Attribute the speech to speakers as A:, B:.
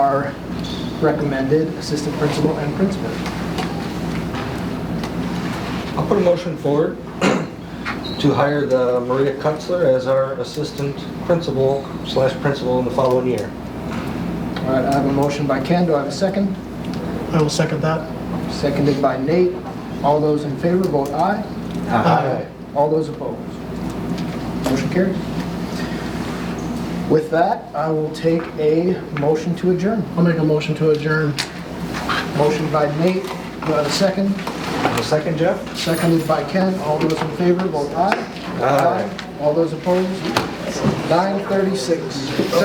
A: our recommended assistant principal and principal.
B: I'll put a motion forward to hire the Maria Kutzler as our assistant principal slash principal in the following year.
A: All right, I have a motion by Ken, do I have a second?
C: I will second that.
A: Seconded by Nate. All those in favor, vote aye.
C: Aye.
A: All those opposed? Motion carries. With that, I will take a motion to adjourn.
C: I'll make a motion to adjourn.
A: Motion by Nate, do I have a second?
B: A second, Jeff?
A: Seconded by Ken. All those in favor, vote aye.
B: Aye.
A: All those opposed? 9:36.